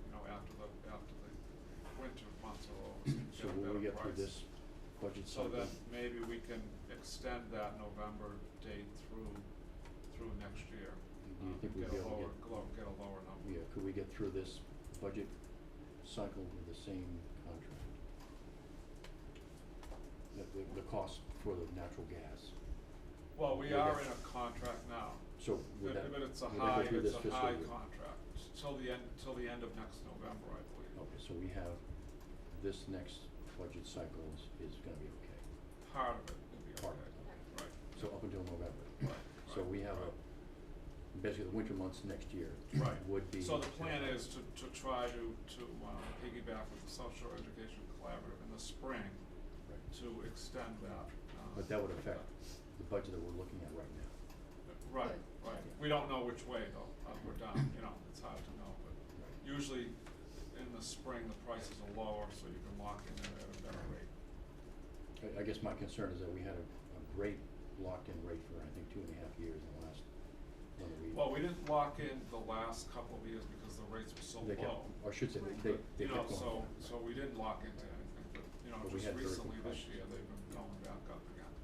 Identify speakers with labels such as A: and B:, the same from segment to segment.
A: budget
B: So
A: cycle.
B: then maybe we can extend that November date through, through next year.
A: Do you
B: um,
A: think we'd be
B: a
A: able to
B: lower- glo- Get a lower number.
A: Yeah, could we get through this budget cycle with the same contract? The, the, the cost for the natural gas,
B: Well, we
A: Yeah,
B: are
A: that's-
B: in a contract now,
A: so
B: but
A: would that,
B: but
A: would
B: it's a
A: that
B: high,
A: go through this
B: it's
A: fiscal
B: a
A: year?
B: high contract, s- till the end, till the end of next November, I believe.
A: Okay, so we have, this next budget cycle is, is gonna be okay,
B: Part of it will be okay,
A: part of
B: right,
A: it.
B: right,
A: so up until November.
B: right.
A: So we have
B: right.
A: a, basically the winter months next year
B: Right.
A: would be.
B: So the plan is to, to try to, to um, piggyback with the South Shore Education Collaborative in the spring
A: Right.
B: to extend that. um,
A: But that would affect the budget that we're looking at right now.
B: Right, right. We don't know which way though, uh, we're done, you know, it's hard to know, but usually in the spring, the prices are lower, so you can lock in at a better rate.
A: I, I guess my concern is that we had a, a great locked-in rate for, I think, two and a half years in the last, when we.
B: Well, we didn't lock in the last couple of years because the rates were so
A: they kept-
B: low.
A: Or I should say,
B: but,
A: they, they
B: You know,
A: kept going.
B: so, so we didn't lock into anything, but, you know,
A: But we
B: just
A: had very good
B: recently this
A: prices.
B: year, they've been going back up again.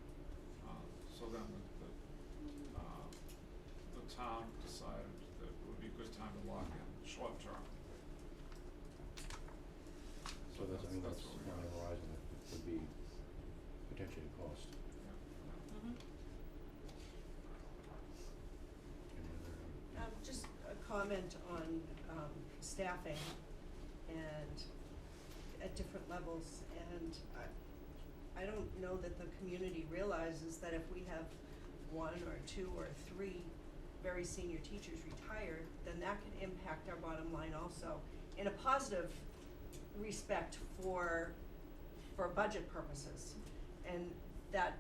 B: Uh, So then the, the, uh, the town decided that it would be a good time to lock in, short term.
A: So that's, I mean, that's
B: what we
A: on the
B: got.
A: horizon, that would be potentially a cost.
B: Yeah,
C: Mm-hmm.
A: Any other-
C: Um, just a comment on, um, staffing and at different levels, and I, I don't know that the community realizes that if we have one or two or three very senior teachers retired, then that can impact our bottom line also, in a positive respect for, for budget purposes. And that,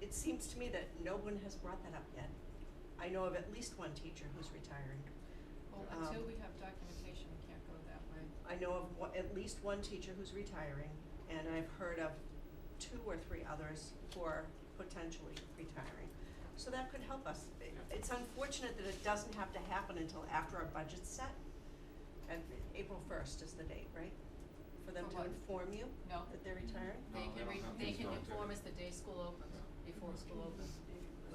C: it seems to me that no one has brought that up yet. I know of at least one teacher who's retiring.
D: Well,
C: Um,
D: until we have documentation, we can't go that way.
C: I know of one, at least one teacher who's retiring, and I've heard of two or three others who are potentially retiring. So that could help us. It- It's unfortunate that it doesn't have to happen until after our budget's set, and April first is the date, right? For them
D: For
C: to
D: what? Oh.
C: inform you
D: No,
C: that they're retiring?
B: No,
D: they
B: they
D: can
B: don't
D: re-
B: have to
D: they can
B: start
D: inform
B: it.
D: us the day school opens, before school opens.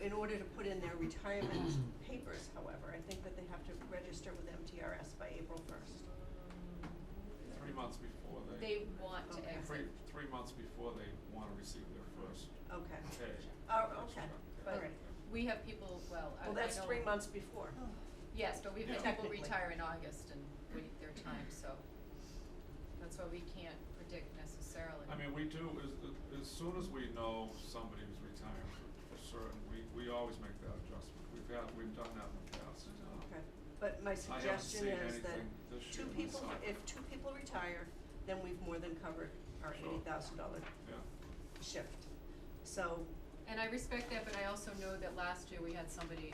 C: In order to put in their retirement papers, however, I think that they have to register with MTRS by April first.
B: Three months before
D: They
B: they,
D: want to
C: Okay.
D: exit,
B: three, three months before they wanna receive their first
C: Okay.
B: pay.
C: Oh,
B: That's
C: okay,
B: right.
C: all
D: but
C: right.
D: we have people, well, I I
C: Well,
D: know.
C: that's three months before.
D: Yes, but we have
B: Yeah.
D: people
C: Technically.
D: retire in August and wait their time, so that's why we can't predict necessarily.
B: I mean, we do, as, as soon as we know somebody who's retiring for, for certain, we, we always make that adjustment. We've had, we've done that in the past. Uh,
C: Okay, but my
B: I haven't
C: suggestion
B: seen
C: is
B: anything
C: that
B: this
C: two
B: year
C: people,
B: myself.
C: if two people retire, then we've more than covered our
B: Sure.
C: eighty thousand dollar
B: Yeah,
C: shift. So,
D: And I respect that, but I also know that last year we had somebody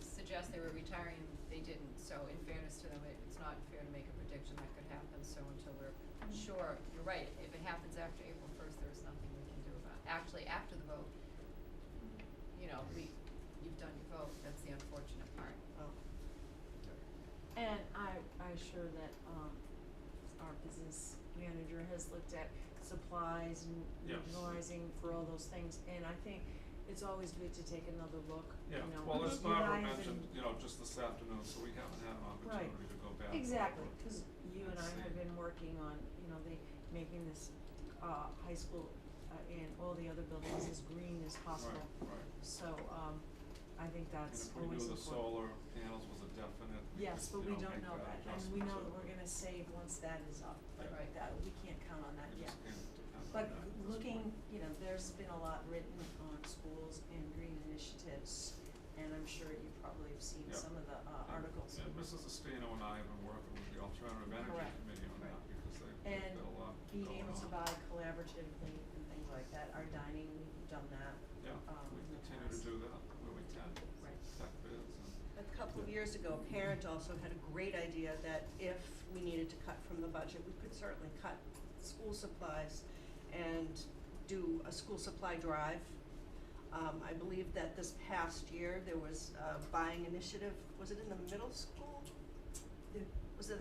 D: suggest they were retiring, they didn't, so in fairness to them, it- it's not fair to make a prediction that could happen, so until we're sure, you're right, if it happens after April first, there's nothing we can do about, it. actually, after the vote, you know, we, you've done your vote, that's the unfortunate part.
C: well,
E: And I, I assure that, um, our business manager has looked at supplies and
B: Yeah.
E: utilizing for all those things, and I think it's always good to take another look, you
B: yeah,
E: know.
B: well, as
E: you
B: Barbara
E: guys
B: mentioned,
E: and-
B: you know, just this afternoon, so we haven't had an
E: Right.
B: opportunity to go back. and
E: Exactly,
B: look.
E: cause you and I have been working on, you know, the, making this, uh, high school, uh, and all the other buildings as green as possible.
B: Right, right.
E: So, um, I think
B: And
E: that's
B: if we
E: always important.
B: knew the solar panels was a definite, we
E: Yes,
B: could,
E: but
B: you
E: we
B: know,
E: don't
B: make
E: know that, and we
B: adjustment,
E: know
B: so
E: that we're gonna save once that is up, but
B: Yeah.
E: that, we can't count on that
B: we
E: yet.
B: just can't depend on
E: But
B: that at this
E: looking,
B: point.
E: you know, there's been a lot written on schools and green initiatives, and I'm sure you probably have seen
B: Yeah.
E: some of the,
B: And-
E: uh, articles.
B: And Mrs. Estino and I have been working with the Alternative Energy
E: Correct,
B: Committee on that
E: right.
B: because they, they've got a lot
E: And
B: going on.
E: being able to buy collaboratively and things like that, our dining, we've done that.
B: Yeah,
E: um,
B: we
E: in the
B: continue to
E: past.
B: do that where we can,
D: Right.
B: tech bids and,
C: a couple of years ago, a parent also had a great idea that if we needed to cut from the budget, we could certainly cut school supplies and do a school supply drive. Um, I believe that this past year, there was a buying initiative, was it in the middle school? The- Was it